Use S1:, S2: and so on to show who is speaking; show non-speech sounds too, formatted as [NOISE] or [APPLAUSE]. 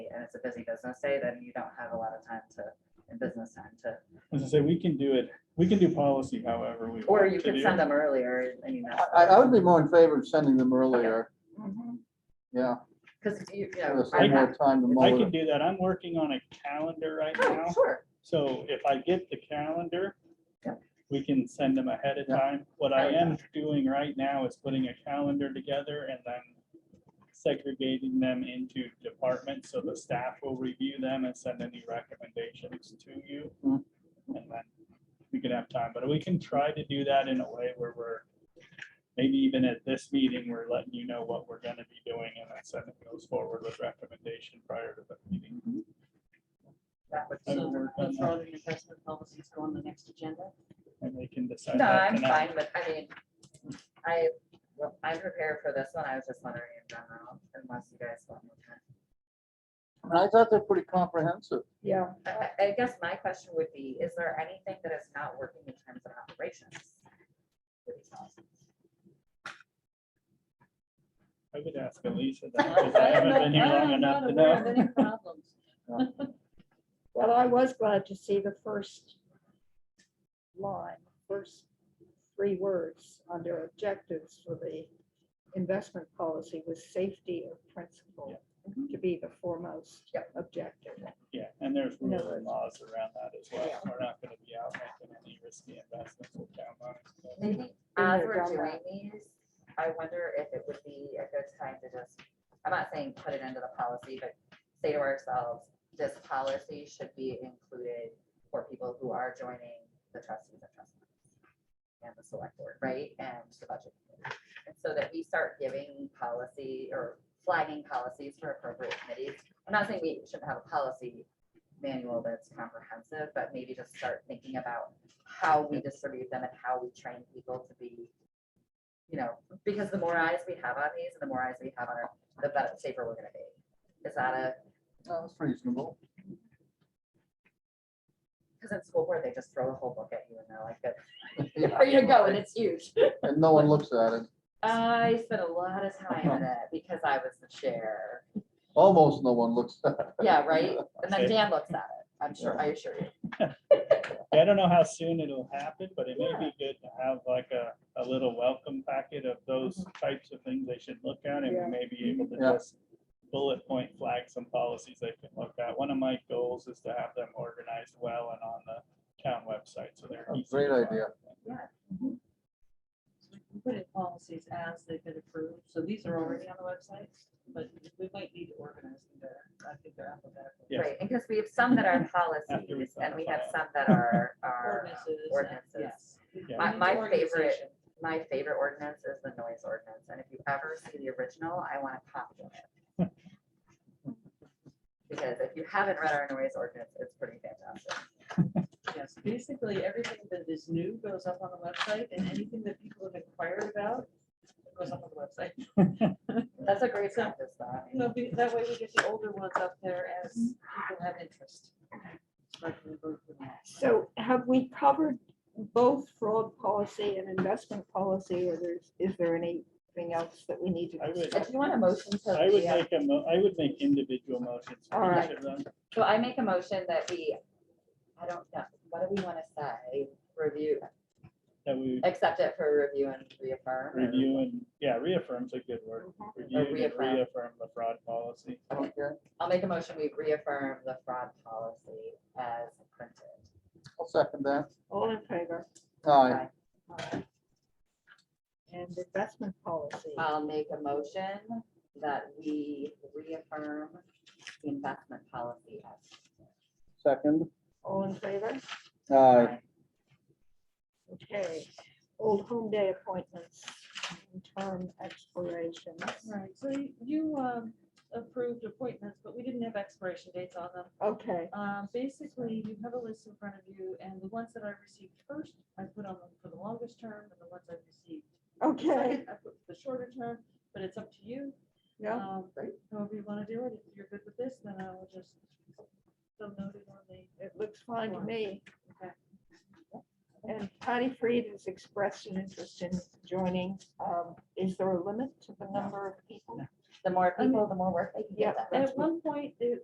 S1: and it's a busy business day,
S2: Mm-hmm.
S1: then you don't have a lot of time to, in business time to,
S3: As I say, we can do it, we can do policy however we.
S1: or
S3: want
S1: you
S3: to
S1: could
S3: do
S1: send
S3: it.
S1: them earlier and you know.
S2: I, I would be more in favor of sending them earlier, yeah.
S1: Because Mm-hmm. you, you
S2: give
S1: know.
S2: us
S1: I-
S3: I'm
S2: more time to
S3: I
S2: mull
S3: can
S2: it.
S3: do that. I'm working on a calendar right
S1: Oh,
S3: now.
S1: Sure,
S3: So if I get the calendar,
S1: Yeah.
S3: we can send them ahead of
S2: Yeah.
S3: time. What I
S1: Oh, yeah.
S3: am doing right now is putting a calendar together and then segregating them into departments, so the staff will review them and send any recommendations to you.
S2: Hmm.
S3: And then we can have time, but we can try to do that in a way where we're, maybe even at this meeting, we're letting you know what we're gonna be doing and then sending those forward with recommendation prior to the meeting.
S1: that would
S3: I
S1: be.
S3: will
S2: Mm-hmm.
S4: So
S3: work on
S4: let's
S3: that.
S4: all the investment policies go on the next agenda.
S3: And they can decide.
S1: No,
S3: that
S1: I'm
S3: tonight.
S1: fine, but I mean, I, well, I'm prepared for this one. I was just wondering in general, unless you guys want me to.
S2: And I thought they're pretty comprehensive.
S5: Yeah,
S1: I, I- I guess my question would be, is there anything that is not working in terms of operations? with these policies?
S3: I would ask
S5: [LAUGHS]
S3: Elisa that, because I haven't been here long enough to know.
S5: well, I was glad to see the first line, first three words under objectives for the investment policy was safety of principle to be the foremost objective.
S3: Yeah, and there's
S5: No
S3: rules and
S5: worries.
S3: laws around that as well.
S5: Yeah.
S3: We're not gonna be out making any risky investments with town money. so.
S1: Maybe
S5: Been
S1: as
S5: there,
S1: we're
S5: done
S1: doing
S5: that.
S1: these, I wonder if it would be a good time to just, I'm not saying put it into the policy, but say to ourselves, this policy should be included for people who are joining the trustees and trustees. And the select board, right, and the budget. committee. And so that we start giving policy or flagging policies for appropriate committees. I'm not saying we shouldn't have a policy manual that's comprehensive, but maybe just start thinking about how we distribute them and how we train people to be, you know, because the more eyes we have on these and the more eyes we have on our, the better, safer we're gonna be. Is that a,
S2: No, That's reasonable.
S1: because in school board, they just throw a whole book at you and they're like,
S3: [LAUGHS]
S2: Yeah.
S1: there you go, and it's huge.
S2: And no one looks at it,
S1: I spent a lot of time in it because I was the chair.
S2: almost no one looks at it.
S1: Yeah, right? And
S3: Okay.
S1: then Dan looks at it, I'm sure, I assure you.
S3: I don't know how soon it'll happen, but it may be good to have like a, a little welcome packet of those types of things they should look at and
S5: Mm-hmm. Yeah.
S3: we may be able to
S2: Yeah.
S3: just bullet point flag some policies they can look at. One of my goals is to have them organized well and on the town website, so they're.
S2: Oh,
S3: easy
S2: great
S3: to find.
S2: idea.
S4: Put in policies as they've been approved, so these are already on the website, but we might need to organize them better. I think they're alphabetical.
S3: Yeah. Yes.
S1: Right, and because we have some that are
S3: [LAUGHS] After we
S1: policies
S3: sign
S1: and we
S3: the
S1: have
S3: file.
S1: some that are, are
S4: Ordinances.
S1: um,
S4: and-
S1: ordinances.
S4: yes.
S3: Yeah.
S1: My-
S4: We need
S1: my
S4: organization.
S1: favorite- my favorite ordinance is the noise ordinance, and if you ever see the original, I want a copy of it. Because if you haven't read our noise ordinance, it's pretty fantastic.
S4: Yes, basically, everything that is new goes up on the website and anything that people have inquired about goes up on the website.
S1: That's a great practice, though.
S4: You know, be- that way we get the older ones up there as people have interest. Like we go through them.
S5: So have we covered both fraud policy and investment policy, or there's, is there anything else that we need
S3: I
S5: to?
S3: would-
S1: If Uh,
S5: discuss?
S1: you want a motion to. uh,
S3: I would
S1: yeah.
S3: make a mo, I would make individual motions. for
S5: All
S3: each
S5: right.
S3: of them.
S1: So I make a motion that we, I don't know, what do we want to say? Review,
S3: That we
S1: accept it for review and reaffirm. or-
S3: review and, yeah, reaffirm's a good word. Review and
S1: reaffirm.
S3: reaffirm the fraud policy.
S2: Okay,
S1: I'll make a motion, we reaffirm the fraud policy as printed.
S2: I'll second that.
S5: All in favor?
S2: Aye.
S5: All right. And investment policy.
S1: I'll make a motion that we reaffirm the investment policy. as-
S2: second.
S5: All in favor?
S2: Aye.
S5: Okay. Old home day appointments, and term expirations.
S4: Right, so you- you um, approved appointments, but we didn't have expiration dates on them.
S5: Okay,
S4: Um, Basically, you have a list in front of you, and the ones that I received first, I put on them for the longest term, and the ones I received
S5: okay,
S4: second, I put for the shorter term, but it's up to you.
S5: yeah,
S4: Um,
S1: Right.
S4: However you want to do it, if you're good with this, then I will just so noted on the.
S5: it looks fine to me.
S4: Okay.
S5: And Patty Freed has expressed an interest in joining. Um, Is there a limit to the number of people?
S1: The more people, the more work they can
S5: Yeah.
S1: get done.
S4: At one point, it